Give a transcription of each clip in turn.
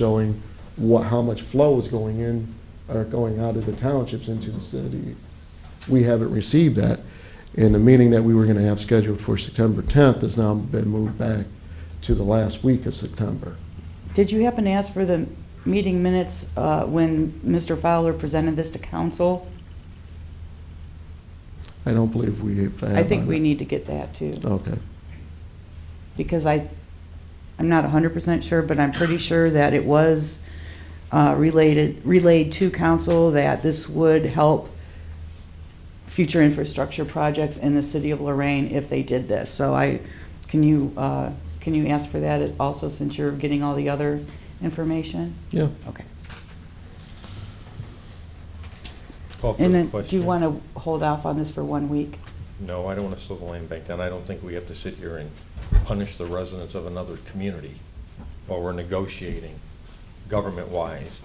showing what, how much flow is going in or going out of the townships into the city. We haven't received that. And the meeting that we were going to have scheduled for September 10th has now been moved back to the last week of September. Did you happen to ask for the meeting minutes uh, when Mr. Fowler presented this to council? I don't believe we have. I think we need to get that too, Okay. because I, I'm not 100% sure, but I'm pretty sure that it was uh, related, relayed to council that this would help future infrastructure projects in the city of Lorraine if they did this. So I, can you, uh, can you ask for that also since you're getting all the other information? Yeah. Okay. Call for And the then, do you question. want to hold off on this for one week? No, I don't want to slow the land bank down. I don't think we have to sit here and punish the residents of another community while we're negotiating government-wise.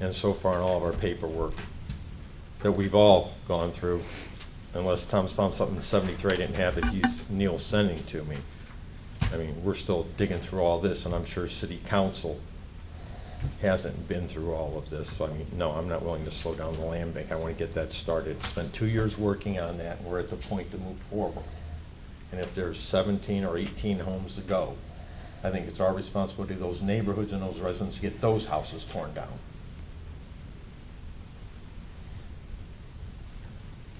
And so far in all of our paperwork that we've all gone through, unless Tom's found something in 73 I didn't have that he's, Neil's sending to me. I mean, we're still digging through all this, and I'm sure city council hasn't been through all of this, so I mean, no, I'm not willing to slow down the land bank. I want to get that started. Spent two years working on that, and we're at the point to move forward. And if there's 17 or 18 homes to go, I think it's our responsibility, those neighborhoods and those residents, to get those houses torn down.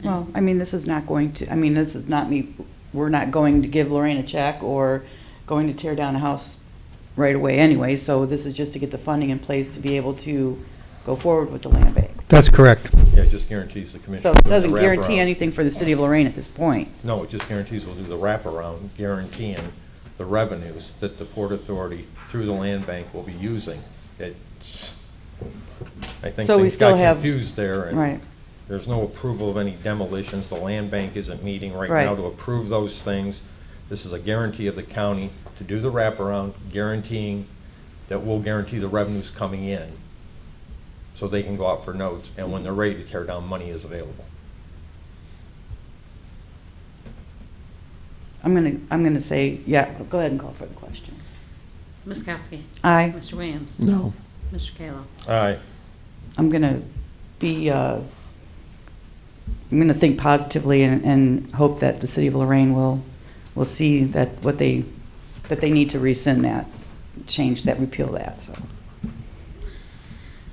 Well, I mean, this is not going to, I mean, this is not me, we're not going to give Lorraine a check or going to tear down a house right away anyway, so this is just to get the funding in place to be able to go forward with the land bank. That's correct. Yeah, it just guarantees the commission. So will it do the doesn't guarantee wraparound. anything for the city of Lorraine at this point. No, it just guarantees we'll do the wraparound, guaranteeing the revenues that the Port Authority, through the land bank, will be using. It's, I think So we things still got have- confused there, Right. and there's no approval of any demolitions. The land bank isn't meeting right Right. now to approve those things. This is a guarantee of the county to do the wraparound, guaranteeing that we'll guarantee the revenues coming in, so they can go out for notes, and when they're ready to tear down, money is available. I'm gonna, I'm gonna say, yeah, go ahead and call for the question. Ms. Kowski. Aye. Mr. Williams. No. Mr. Kayla. Aye. I'm gonna be, uh, I'm gonna think positively and, and hope that the city of Lorraine will, will see that what they, that they need to rescind that, change that, repeal that, so.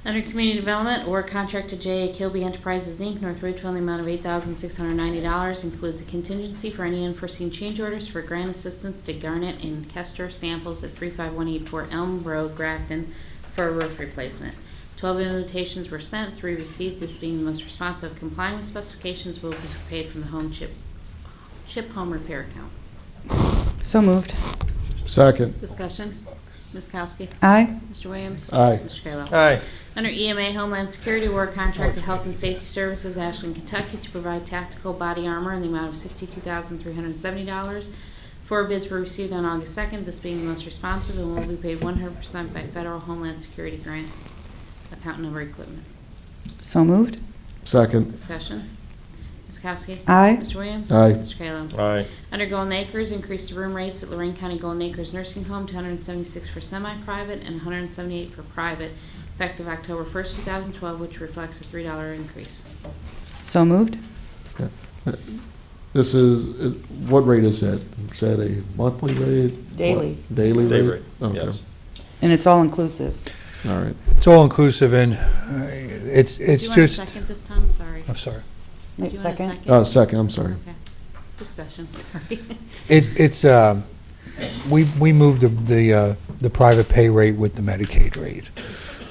Under Community Development, award contract to J.A. Kilby Enterprises, Inc., North Ridgeville, in the amount of $8,690, includes a contingency for any unforeseen change orders for grant assistance to Garnet and Kester Samples at 35184 Elm Road, Grafton, for a roof replacement. Twelve invitations were sent, three received, this being the most responsive complying with specifications will be paid from the home chip, chip home repair account. So moved. Second. Discussion, Ms. Kowski. Aye. Mr. Williams. Aye. Mr. Kayla. Aye. Under EMA Homeland Security War Contract to Health and Safety Services, Ashland, Kentucky, to provide tactical body armor in the amount of $62,370. Four bids were received on August 2nd, this being the most responsive and will be paid 100% by federal Homeland Security grant account number equipment. So moved. Second. Discussion. Ms. Kowski? Aye. Mr. Williams? Aye. Mr. Kayla? Aye. Under Golden Acres, increase the room rates at Lorraine County Golden Acres Nursing Home to 176 for semi-private and 178 for private, effective October 1st, 2012, which reflects a $3 increase. So moved. This is, what rate is that? Is that a monthly rate? Daily. What? Daily rate? Day rate, Okay. yes. And it's all inclusive. All right. It's all inclusive and uh, it's, it's Do you just, want a second this time? Sorry. I'm sorry. Do you want a second? Uh, second, I'm sorry. Okay. Discussion, sorry. It, it's, um, we, we moved the, the, uh, the private pay rate with the Medicaid rate,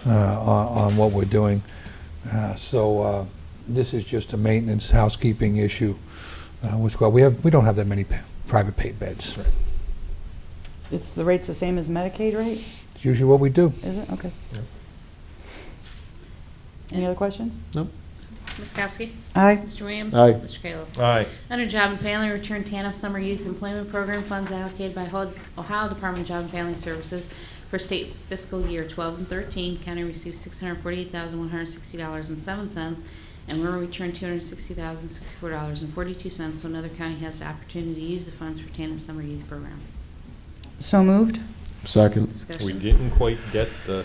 uh, on, on what we're doing. Uh, so, uh, this is just a maintenance housekeeping issue, uh, with, well, we have, we don't have that many pa- private paid beds. It's, the rate's the same as Medicaid rate, It's usually what we do. is it? Okay. Any other questions? Ms. Kowski? Aye. Mr. Williams? Aye. Mr. Kayla? Aye. Under Job and Family, return TANF Summer Youth Employment Program funds allocated by Hol- Ohio Department of Job and Family Services for state fiscal year 12 and 13. County received $648,160.07, and Rural returned $260,064.42, so another county has the opportunity to use the funds for TANF Summer Youth Program. So moved. Second. Discussion. We didn't quite get the